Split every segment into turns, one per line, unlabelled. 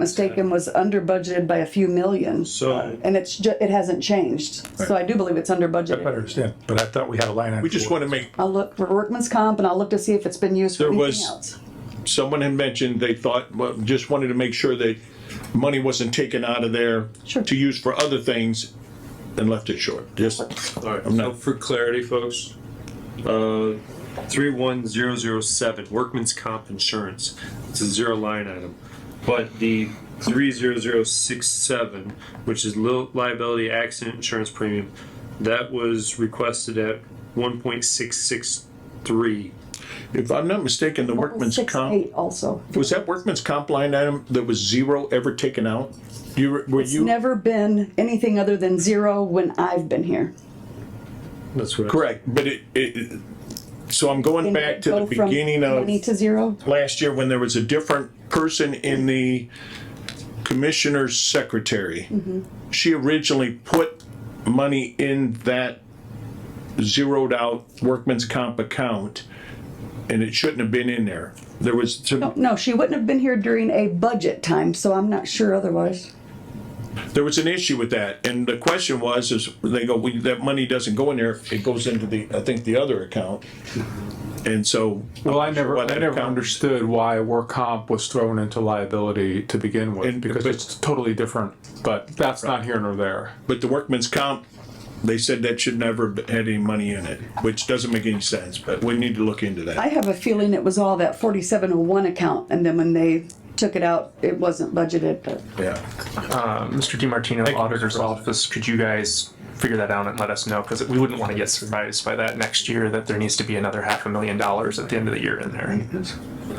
mistaken, was under budgeted by a few million.
So-
And it's ju, it hasn't changed, so I do believe it's under
I
budgeted.
understand, but I thought we had a line item.
We just
for it.
want to make,
I'll look for workman's comp and I'll look to see if it's been used for
There
anything
was-
else.
someone had mentioned they thought, well, just wanted to make sure that money wasn't taken out of there
Sure.
to use for other things and left it short. Just,
All right,
I'm
so
not-
for clarity, folks, uh, three one zero zero seven, workman's comp insurance, it's a zero line item. But the three zero zero six seven, which is li- liability accident insurance premium, that was requested at one point six six three.
if I'm not mistaken, the workman's
Six,
comp,
eight also.
was that workman's comp line item that was zero ever taken out? You, were- were
It's
you?
never been anything other than zero when I've been here.
That's what. I-
Correct, but it, it, so I'm going
And
back to the
go from
beginning of.
Many to zero?
last year when there was a different person in the commissioner's secretary. She originally put money in that zeroed out workman's comp account and it shouldn't have been in there. There was some,
No, she wouldn't have been here during a budget time, so I'm not sure otherwise.
there was an issue with that. And the question was, is they go, well, that money doesn't go in there. It goes into the, I think, the other account. And so.
Well, I never,
What
I never
account-
understood why work comp was thrown into liability to begin with,
And-
because
but-
it's totally different, but that's not here nor there.
But the workman's comp, they said that should never have had any money in it, which doesn't make any sense, but we need to look into
I
that.
have a feeling it was all that forty-seven oh one account, and then when they took it out, it wasn't budgeted, but
Yeah.
Mr. DiMartino, Auditor's Office, could you guys figure that out and let us know? Because we wouldn't want to get surprised by that next year, that there needs to be another half a million dollars at the end of the year in there.
eight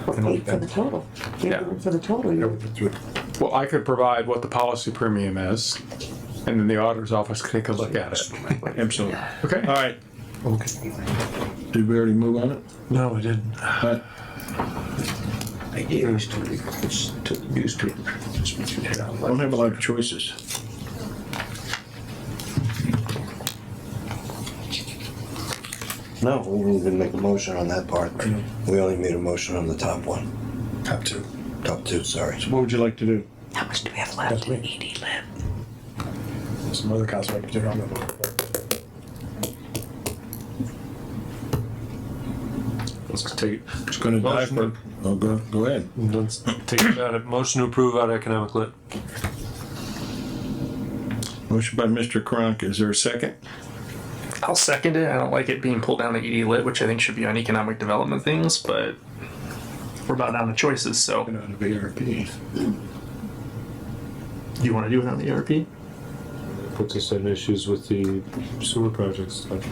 for the total. Eight
Yeah.
For the total, you-
Well, I could provide what the policy premium is, and then the auditor's office could take a look at it.
Absolutely.
Okay.
All right. Did we already move on it?
No, we didn't.
I gave this to the, to the newspaper.
I don't have a lot of choices.
No, we didn't even make a motion on that part. We only made a motion on the top one. Top two. Top two, sorry.
What would you like to do?
How much do we have left in ED lit?
Some other council,
Let's take,
It's gonna die for, oh, go, go ahead.
let's take it out of, motion to approve out of economic lit.
Motion by Mr. Karanka. Is there a second?
I'll second it. I don't like it being pulled down to ED Lit, which I think should be on economic development things, but we're about down to choices, so.
Out of ARP.
Do you want to do it on the E ERP?
Puts us in issues with the sewer projects stuff.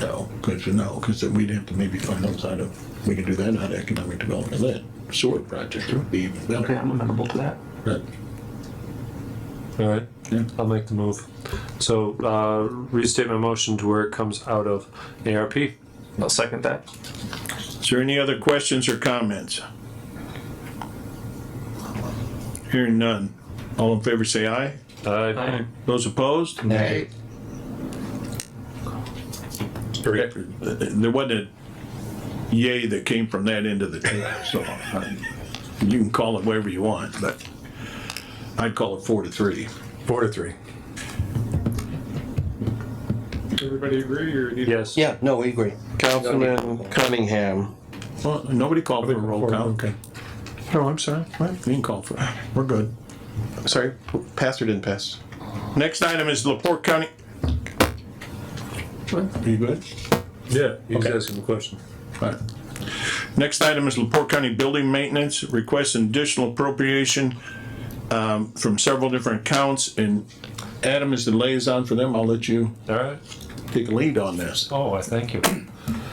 No, good to know, because we'd have to maybe find those out of, we could do that out of economic development lit. Sewer project would be even
Okay,
better.
I'm amenable to that.
But
All right,
Yeah.
I'll make the move. So, uh, restate my motion to where it comes out of ARP.
I'll second that.
Is there any other questions or comments? Hearing none. All in favor, say aye.
Uh,
Those opposed?
Nay.
There wasn't a yay that came from that end of the table, so uh, you can call it whatever you want, but I'd call it four to three.
Four to three.
Everybody agree or? Yes.
Yeah, no, we agree. Councilman Cunningham.
Well, nobody called for a roll call. Okay. Oh, I'm sorry. Well, You can call for, it. we're good.
Sorry, passed or didn't pass?
Next item is Laporte County. Are you good?
Yeah, you just asking the question.
Alright. Next item is Laporte County Building Maintenance, requests an additional appropriation um, from several different accounts, and Adam is the liaison for them. I'll let you
All right.
take a lead on this.
Oh, I thank you.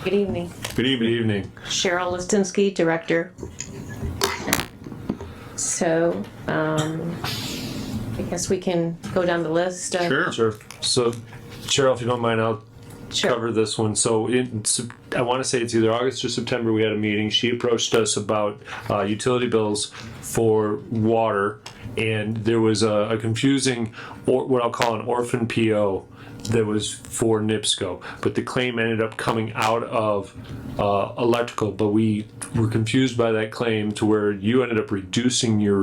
Good evening.
Good
Good
evening.
evening.
Cheryl Listinsky, Director. So, um, I guess we can go down the list. of-
Sure.
Sure. So Cheryl, if you don't mind, I'll
Sure.
cover this one. So in, Sep- I want to say it's either August or September, we had a meeting. She approached us about uh, utility bills for water. And there was a a confusing, or what I'll call an orphan PO that was for NIPSCO. But the claim ended up coming out of uh, electrical, but we were confused by that claim to where you ended up reducing your